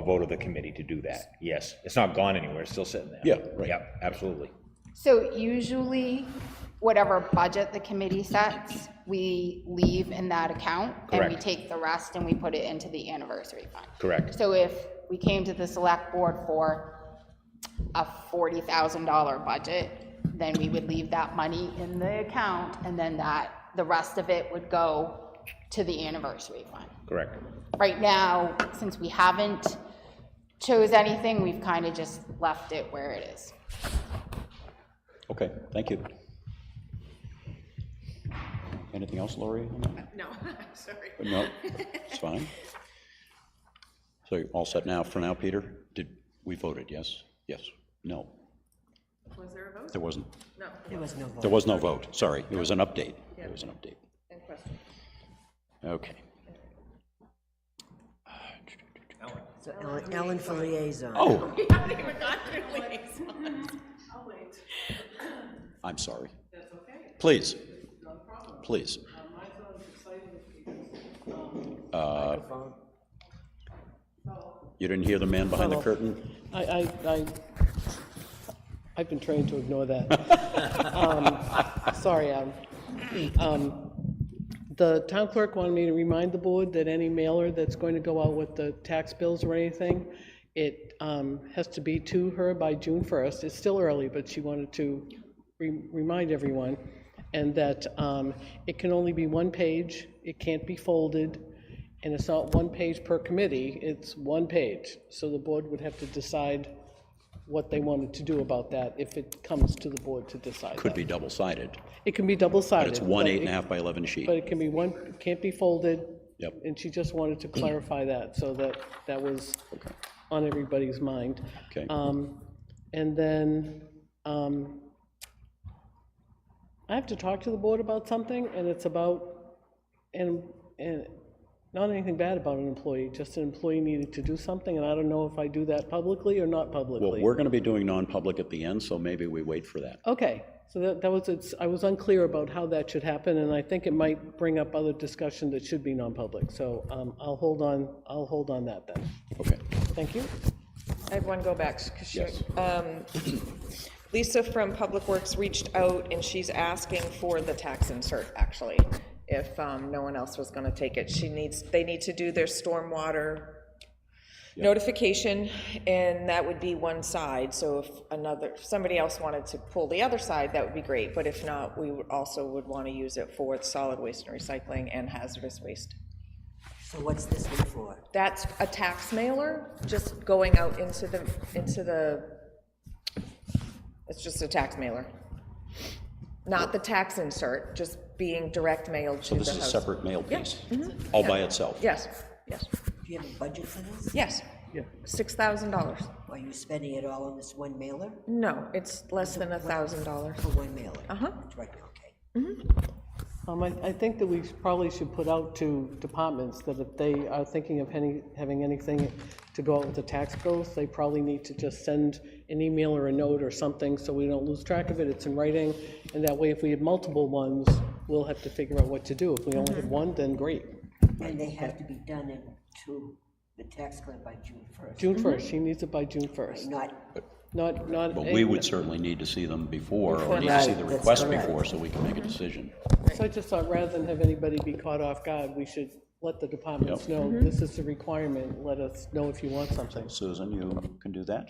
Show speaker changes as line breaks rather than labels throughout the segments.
vote of the committee to do that, yes. It's not gone anywhere, it's still sitting there.
Yeah, right.
Yep, absolutely.
So usually, whatever budget the committee sets, we leave in that account, and we
Correct.
take the rest and we put it into the anniversary fund.
Correct.
So if we came to the select board for a $40,000 budget, then we would leave that money in the account, and then that, the rest of it would go to the anniversary fund.
Correct.
Right now, since we haven't chose anything, we've kind of just left it where it is.
Okay, thank you. Anything else, Lori? on that?
No, sorry.
No, it's fine. So you're all set now, for now, Peter? Did, we voted, yes? Yes? No?
Was there a vote?
There wasn't.
No.
There was no vote, sorry. It was an update. It was an update.
And question.
Okay.
So Ellen- Ellen for liaison.
Oh,
We haven't even gotten through liaison. I'll wait.
I'm sorry. That's okay. Please. Please. Uh, You didn't hear the man behind the curtain?
I, I, I, I've been trained to ignore that. Um, Sorry, Adam. Um, The town clerk wanted me to remind the board that any mailer that's going to go out with the tax bills or anything, it um, has to be to her by June 1st. It's still early, but she wanted to re- remind everyone, and that um, it can only be one page, it can't be folded, and it's not one page per committee, it's one page. So the board would have to decide what they wanted to do about that if it comes to the board to decide
Could
that.
be double-sided,
It can be double-sided.
but it's one eight
it-
and a half by 11 sheet.
But it can be one, it can't be folded.
Yep.
And she just wanted to clarify that, so that, that was on everybody's mind.
Okay.
Um, And then, um, I have to talk to the board about something, and it's about, and, and not anything bad about an employee, just an employee needed to do something, and I don't know if I do that publicly or not
Well,
publicly.
we're going to be doing non-public at the end, so maybe we wait for that.
Okay, so that, that was, it's, I was unclear about how that should happen, and I think it might bring up other discussion that should be non-public, so, um, I'll hold on, I'll hold on that then.
Okay.
Thank you.
I have one go back. 'cause she-
Uh,
um, Lisa from Public Works reached out and she's asking for the tax insert, actually, if um, no one else was going to take it. She needs, they need to do their stormwater notification, and that would be one side. So if another, if somebody else wanted to pull the other side, that would be great. But if not, we would- also would want to use it for solid waste and recycling and hazardous waste.
So what's this one for?
That's a tax mailer, just going out into the, into the, it's just a tax mailer. Not the tax insert, just being direct mailed to the
This is a
house.
separate mail piece, Oh,
Mm-hmm.
all by itself.
Yes, yes,
Do you have a budget for this?
yes. $6,000.
Are you spending it all on this one mailer?
No, it's less than $1,000.
For one mailer?
Uh-huh.
That's right, okay.
Um, I, I think that we probably should put out to departments that if they are thinking of any, having anything to go out with the tax bills, they probably need to just send an email or a note or something, so we don't lose track of it, it's in writing, and that way, if we have multiple ones, we'll have to figure out what to do. If we only have one, then great.
And they have to be done in to the tax claim by June 1st,
June 1st, she needs it by June 1st,
not,
not, not.
But we would certainly need to see them before, or need to see the
Right,
request
that's correct.
before, so we can make a decision.
So I just thought, rather than have anybody be caught off guard, we should let the departments know, this is the requirement, let us know if you want something.
Susan, you can do that?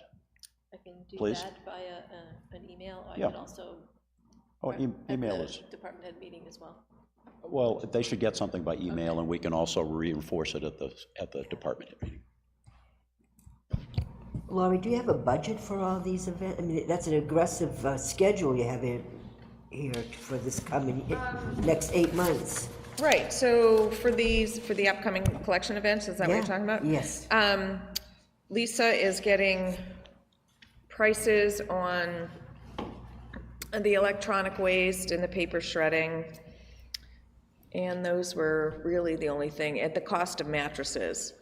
I can do
Please.
that via uh, an email, or I
Yeah.
can also.
Oh, e- email
the
us.
Department head meeting as well.
Well, they should get something by email, and we can also reinforce it at the, at the department head meeting.
Laurie, do you have a budget for all these events? I mean, that's an aggressive uh, schedule you have here, here for this coming, next eight months.
Right, so for these, for the upcoming collection events, is that what you're
Yeah,
talking about?
yes.
Um, Lisa is getting prices on the electronic waste and the paper shredding. And those were really the only thing, at the cost of mattresses.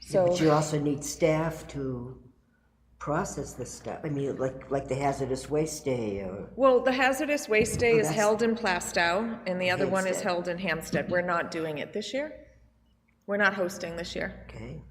So,
But you also need staff to process this stuff. I mean, like, like the hazardous waste day or,
well, the hazardous waste day is
Oh, that's-
held in Plastow, and the other one is
Hampstead.
held in Hampstead. We're not doing it this year. We're not hosting this year.
okay?